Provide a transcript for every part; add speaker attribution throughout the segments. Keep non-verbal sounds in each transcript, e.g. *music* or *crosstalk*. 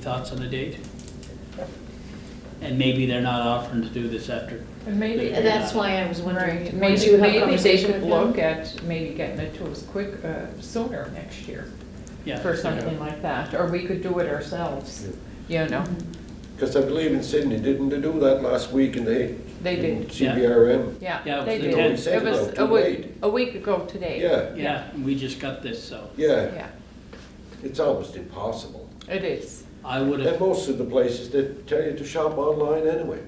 Speaker 1: Thoughts on the date? And maybe they're not offering to do this after,
Speaker 2: And maybe,
Speaker 1: Yeah.
Speaker 3: That's why I was
Speaker 2: right,
Speaker 3: wondering, once
Speaker 2: maybe,
Speaker 3: you have a
Speaker 2: maybe they
Speaker 3: conversation
Speaker 2: could
Speaker 3: with
Speaker 2: look
Speaker 3: them.
Speaker 2: at maybe getting it to us quick, uh, sooner next year
Speaker 1: yeah.
Speaker 2: for something like that, or we could do it ourselves, you know?
Speaker 4: Because I believe in Sydney, didn't they do that last week in the?
Speaker 2: They did,
Speaker 1: yeah.
Speaker 4: CBRM?
Speaker 1: Yeah,
Speaker 2: yeah,
Speaker 1: it
Speaker 2: they
Speaker 1: was
Speaker 2: did.
Speaker 1: the
Speaker 2: It
Speaker 1: tenth.
Speaker 2: was
Speaker 4: Said about
Speaker 2: a
Speaker 4: too
Speaker 2: week-
Speaker 4: late.
Speaker 2: A week ago today.
Speaker 4: Yeah,
Speaker 1: Yeah, and we just got this, so
Speaker 4: yeah,
Speaker 2: Yeah,
Speaker 4: it's almost impossible.
Speaker 2: it is.
Speaker 1: I would
Speaker 4: And
Speaker 1: have,
Speaker 4: most of the places, they tell you to shop online anyway.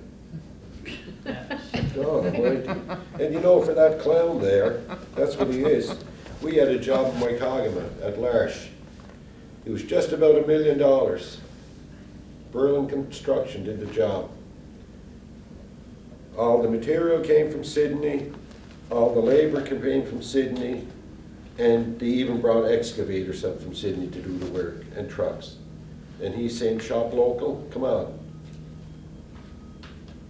Speaker 4: God almighty. Oh, And you know, for that clown there, that's what he is. We had a job in Waikagama at Larch. It was just about a million dollars. Berlin Construction did the job. All the material came from Sydney, all the labor came from Sydney, and they even brought excavators up from Sydney to do the work, and trucks. And he's saying, shop local, come on.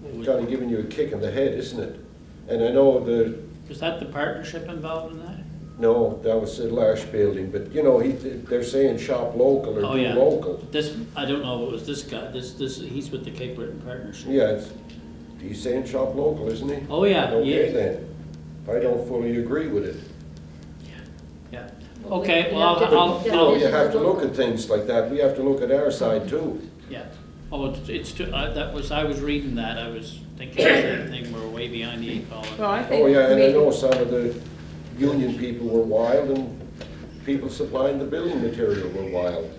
Speaker 4: It's kind of giving you a kick in the head, isn't it? And I know the,
Speaker 1: was that the partnership involved in that?
Speaker 4: no, that was the Lash building, but you know, he, they're saying shop local
Speaker 1: Oh,
Speaker 4: or do
Speaker 1: yeah.
Speaker 4: local.
Speaker 1: This, I don't know if it was this guy, this, this, he's with the Cape Breton Partnership.
Speaker 4: Yeah, it's, he's saying shop local, isn't he?
Speaker 1: Oh, yeah,
Speaker 4: Okay
Speaker 1: yeah,
Speaker 4: then, I don't fully agree with it.
Speaker 1: yeah. Okay,
Speaker 3: You
Speaker 1: well,
Speaker 3: have to-
Speaker 1: I'll-
Speaker 3: you
Speaker 4: So
Speaker 1: Oh.
Speaker 4: you have to look at things like that, we have to look at our side too.
Speaker 1: Yeah. Oh, it's, it's, too- I- that was, I was reading that, I was thinking the same thing, we're way behind the eight ball.
Speaker 2: Well, I think
Speaker 4: Oh, yeah, and I
Speaker 2: maybe-
Speaker 4: know some of the union people were wild and people supplying the building material were wild.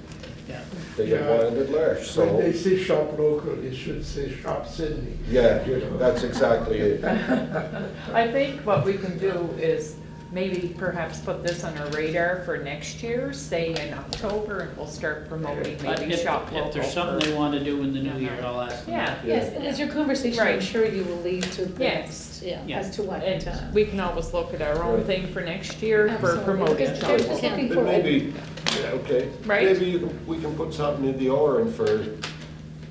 Speaker 1: Yeah.
Speaker 4: They got
Speaker 5: Yeah.
Speaker 4: wild at Lash, so.
Speaker 5: When they say shop local, they should say shop Sydney. You
Speaker 4: Yeah,
Speaker 5: know.
Speaker 4: that's exactly it.
Speaker 2: I think what we can do is maybe perhaps put this on our radar for next year, say in October, and we'll start promoting
Speaker 1: But
Speaker 2: maybe
Speaker 1: if-
Speaker 2: shop local.
Speaker 1: If there's
Speaker 2: for-
Speaker 1: something they want to do in the new year, I'll ask them.
Speaker 2: Yeah,
Speaker 3: Yes, and it's your conversation, I'm
Speaker 2: Right.
Speaker 3: sure you will lead to the
Speaker 2: Yes.
Speaker 3: next, yeah,
Speaker 1: Yeah.
Speaker 3: as to what. uh,
Speaker 2: and we can always look at our own
Speaker 4: Right.
Speaker 2: thing for next year for
Speaker 3: Absolutely,
Speaker 2: promoting
Speaker 3: because
Speaker 2: shop
Speaker 3: there's just
Speaker 2: local.
Speaker 3: a-
Speaker 4: But
Speaker 3: Looking for-
Speaker 4: maybe, yeah, okay.
Speaker 2: Right.
Speaker 4: Maybe you can, we can put something in the orange for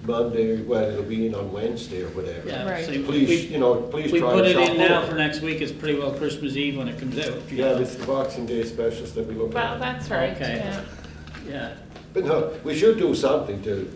Speaker 4: Monday, well, it'll be in on Wednesday or whatever.
Speaker 1: Yeah,
Speaker 2: Right.
Speaker 1: so
Speaker 4: Please,
Speaker 1: we,
Speaker 4: you know, please
Speaker 1: we
Speaker 4: try
Speaker 1: put
Speaker 4: and
Speaker 1: it
Speaker 4: shop
Speaker 1: in now
Speaker 4: local.
Speaker 1: for next week, it's pretty well Christmas Eve when it comes out. you
Speaker 4: Yeah,
Speaker 1: know.
Speaker 4: it's the Boxing Day specials that we look
Speaker 2: Well,
Speaker 4: at.
Speaker 2: that's right,
Speaker 1: Okay.
Speaker 2: yeah.
Speaker 1: Yeah,
Speaker 4: But no, we should do something to,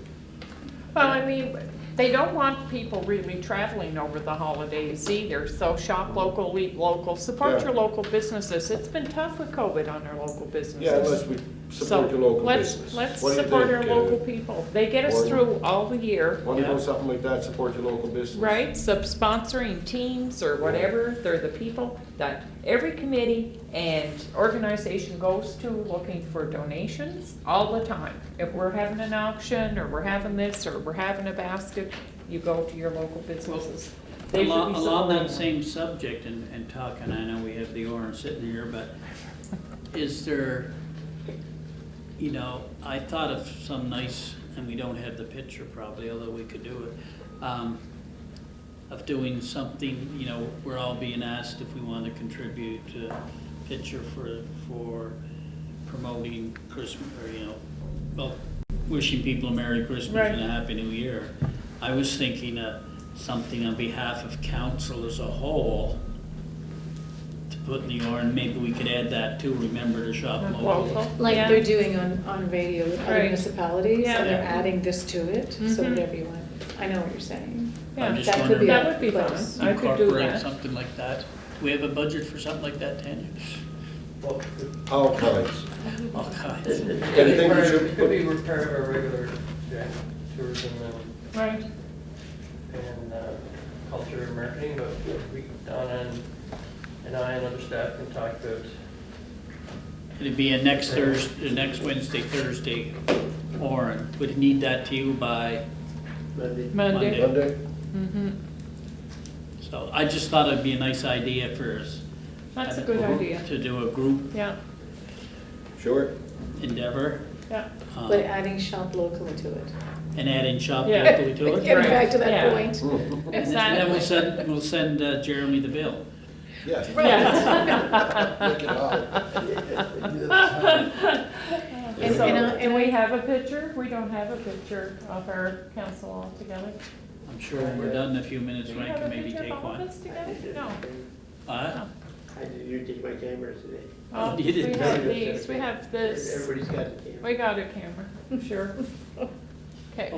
Speaker 2: Well, I mean, they don't want people really traveling over the holidays either, so shop local, eat local, support
Speaker 4: Yeah.
Speaker 2: your local businesses. It's been tough with COVID on our local businesses.
Speaker 4: yeah, unless we support
Speaker 2: So
Speaker 4: your local
Speaker 2: let's-
Speaker 4: business.
Speaker 2: Let's
Speaker 4: What do you
Speaker 2: support our
Speaker 4: think, uh,
Speaker 2: local people. They get us
Speaker 4: Warren?
Speaker 2: through all the year,
Speaker 4: Want to
Speaker 1: Yeah.
Speaker 4: do something like that, support your local business?
Speaker 2: right? So sponsoring teams or whatever, they're the people that every committee and organization goes to looking for donations all the time. If we're having an auction, or we're having this, or we're having a basket, you go to your local businesses. They should
Speaker 1: along,
Speaker 2: be
Speaker 1: along that same
Speaker 2: supporting
Speaker 1: subject and, and talking, I know we have the orange sitting here, but is there, you know, I thought of some nice, and we don't have the picture probably, although we could do it, um, of doing something, you know, we're all being asked if we want to contribute a picture for, for promoting Christmas, or, you know, well, wishing people a Merry Christmas and a
Speaker 2: Right.
Speaker 1: Happy New Year. I was thinking of something on behalf of council as a whole to put in the orange, maybe we could add that too, remember to shop
Speaker 2: them.
Speaker 1: local.
Speaker 3: Like
Speaker 2: Yeah.
Speaker 3: they're doing on, on radio with other
Speaker 2: Right.
Speaker 3: municipalities,
Speaker 2: Yeah.
Speaker 3: and they're adding this to it, so
Speaker 2: Mhm.
Speaker 3: whatever you want, I know what you're saying.
Speaker 1: I'm
Speaker 2: Yeah.
Speaker 1: just
Speaker 3: That could be
Speaker 1: wondering-
Speaker 2: That would be
Speaker 3: a
Speaker 2: fun.
Speaker 3: place.
Speaker 2: I could do
Speaker 1: Incorporate
Speaker 2: that.
Speaker 1: something like that. Do we have a budget for something like that, Tanya? Oh,
Speaker 4: All kinds.
Speaker 1: All kinds.
Speaker 6: It- It
Speaker 4: Yeah,
Speaker 6: could
Speaker 4: the
Speaker 6: be
Speaker 4: thing
Speaker 6: part
Speaker 4: is
Speaker 6: of-
Speaker 4: you
Speaker 6: it could be
Speaker 4: put-
Speaker 6: part of our regular yeah, tourism and,
Speaker 2: Right.
Speaker 6: and uh, culture and marketing, but we, Donna and, and I and other staff can talk about,
Speaker 1: It'd be a next Thursday, next Wednesday, Thursday, Warren. Would need that to you by,
Speaker 6: maybe,
Speaker 2: Monday.
Speaker 4: Monday?
Speaker 2: Mm-hmm.
Speaker 1: so I just thought it'd be a nice idea for us
Speaker 2: That's a good idea.
Speaker 1: to do a group
Speaker 2: Yeah,
Speaker 4: Sure.
Speaker 1: endeavor.
Speaker 2: yeah. uh,
Speaker 1: um,
Speaker 3: But
Speaker 2: Uh-huh.
Speaker 3: adding shop locally to it.
Speaker 1: And adding shop
Speaker 2: *laughs* Yeah.
Speaker 1: locally to it.
Speaker 3: *laughs* Getting
Speaker 2: Right.
Speaker 3: back to that
Speaker 2: Yeah.
Speaker 3: point.
Speaker 1: And then we'll
Speaker 2: Exactly.
Speaker 1: send, we'll send uh, Jeremy the bill.
Speaker 4: Yeah. Look
Speaker 2: *laughs*
Speaker 4: it up.
Speaker 3: And-
Speaker 2: So,
Speaker 3: and I-
Speaker 2: do uh, we have a picture? We don't have a picture of our council all together.
Speaker 1: I'm sure when we're done in a few minutes,
Speaker 2: Do you
Speaker 1: Ryan
Speaker 2: have a
Speaker 1: can maybe
Speaker 2: picture of
Speaker 1: take
Speaker 2: all of
Speaker 1: one.
Speaker 2: us together? No.
Speaker 1: Uh,
Speaker 6: I did, you take my camera today.
Speaker 2: Oh,
Speaker 1: You didn't
Speaker 2: We
Speaker 1: have
Speaker 2: have these, we have this.
Speaker 6: Everybody's got a camera.
Speaker 2: We got a camera, sure. *laughs* Okay.